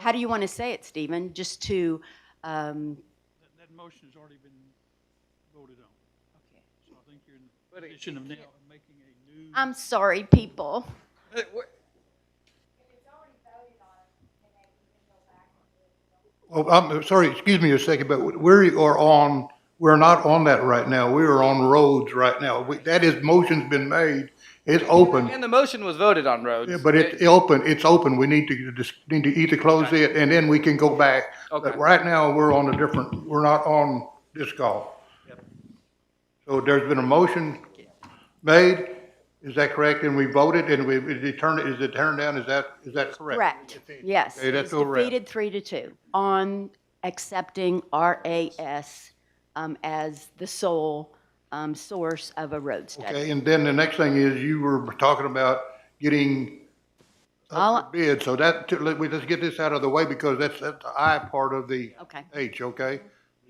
how do you want to say it, Stephen? Just to, um, That, that motion's already been voted on, so I think you're in the But it- position of now making a new. I'm sorry, people. Well, I'm sorry, excuse me a second, but we are on, we're not on that right now. We are on roads right now. We- That is, motion's been made. It's open, And the motion was voted on, Rhodes. Yeah, but it's open, it's open. We need to, dis- need to either close it and then we can go back. But Okay. right now, we're on a different, we're not on this call. So there's been a motion made, is that correct? And we voted and we, is it turned, is it turned down? Is that, is that correct? Correct, yes. Okay, that's It's a wrap. Defeated three to two on accepting RAS um, as the sole um, source of a road study. Okay, and then the next thing is you were talking about getting All- up for bid, so that, let me just get this out of the way because that's, that's the I part of the Okay. H, okay?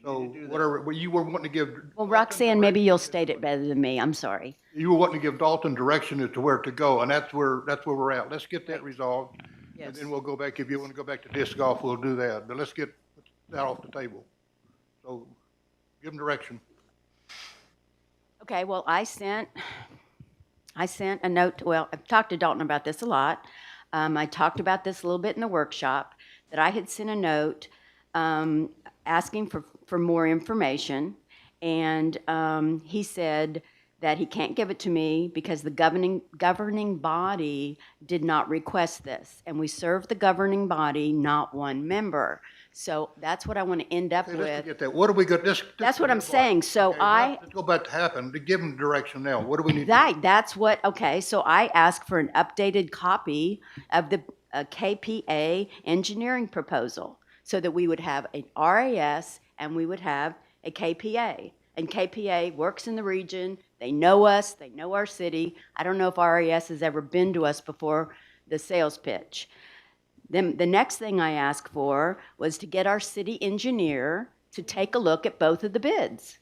So whatever, well, you were wanting to give, Well, Roxanne, maybe you'll state it better than me, I'm sorry. you were wanting to give Dalton direction as to where to go, and that's where, that's where we're at. Let's get that resolved. And then we'll go back, if you want to go back to disc golf, we'll do that, but let's get that off the table. So give them direction. Okay, well, I sent, I sent a note, well, I've talked to Dalton about this a lot. Um, I talked about this a little bit in the workshop, that I had sent a note, um, asking for, for more information. And, um, he said that he can't give it to me because the governing, governing body did not request this. And we serve the governing body, not one member. So that's what I want to end up Okay, let's with. forget that. What do we got, this? That's what I'm saying, so Okay, I. Let's go back to happen, to give them direction now. What do we need? to do? Right, that's what, okay, so I asked for an updated copy of the uh, KPA engineering proposal so that we would have an RAS and we would have a KPA. And KPA works in the region, they know us, they know our city. I don't know if RAS has ever been to us before the sales pitch. Then the next thing I asked for was to get our city engineer to take a look at both of the bids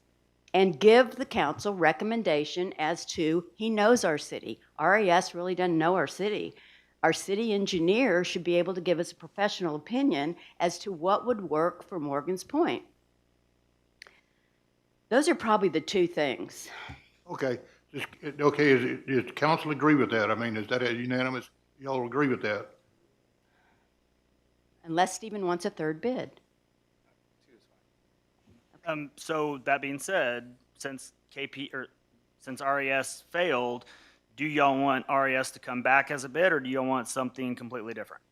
and give the council recommendation as to, he knows our city. RES really doesn't know our city. Our city engineer should be able to give us a professional opinion as to what would work for Morgan's Point. Those are probably the two things. Okay, Just- okay, is, it- does council agree with that? I mean, is that a unanimous, y'all agree with that? Unless Stephen wants a third bid. Um, so that being said, since KP or since RES failed, do y'all want RES to come back as a bid, or do y'all want something completely different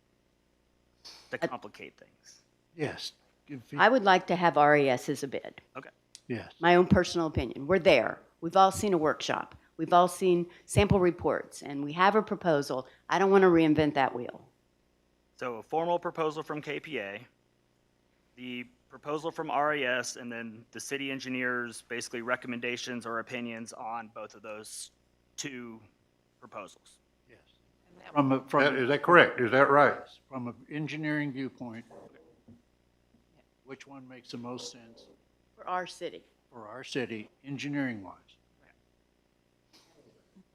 to complicate things? Yes. Give feed- I would like to have RES as a bid. Okay. Yes. my own personal opinion. We're there. We've all seen a workshop. We've all seen sample reports, and we have a proposal. I don't want to reinvent that wheel. So a formal proposal from KPA, the proposal from RES, and then the city engineers basically recommendations or opinions on both of those two proposals. From a, That- from, Is that correct? Is that right? from an engineering viewpoint, which one makes the most sense For our city. for our city, engineering wise?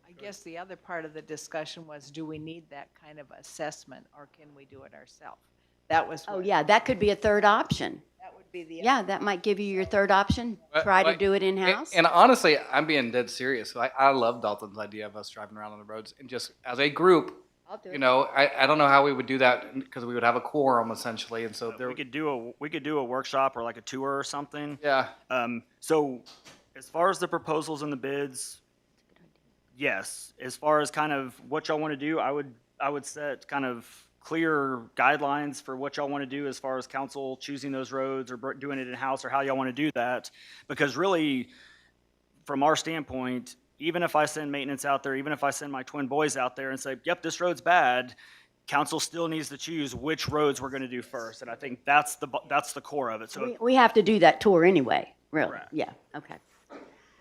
I guess the other part of the discussion was, do we need that kind of assessment, or can we do it ourselves? That was Oh, what- yeah, that could be a third option. That would be the. Yeah, that might give you your third option. But, Try to like, do it And- in-house. And, honestly, I'm being dead serious. I, I love Dalton's idea of us driving around on the roads and just as a group. I'll do You it. know, I, I don't know how we would do that because we would have a quorum essentially, and so there. We could do a we could do a workshop or like a tour or something. yeah, Um, so as far as the proposals and the bids, yes. As far as kind of what y'all want to do, I would, I would set kind of clear guidelines for what y'all want to do as far as council choosing those roads or br- doing it in-house or how y'all want to do that. Because really, from our standpoint, even if I send maintenance out there, even if I send my twin boys out there and say, yep, this road's bad, council still needs to choose which roads we're going to do first. And I think that's the, bu- that's the core of it. So We- We have to do that tour anyway, really. Correct. Yeah, okay.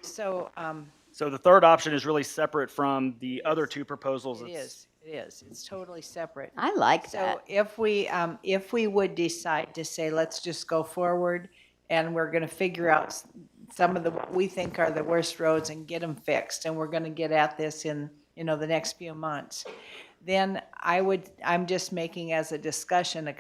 So, um, So the third option is really separate from the other two proposals. it It's- is, it is, it's totally separate. I like that. So if we, um, if we would decide to say, let's just go forward and we're gonna figure out s- some of the, what we think are the worst roads and get them fixed, and we're gonna get at this in, you know, the next few months, then I would, I'm just making as a discussion a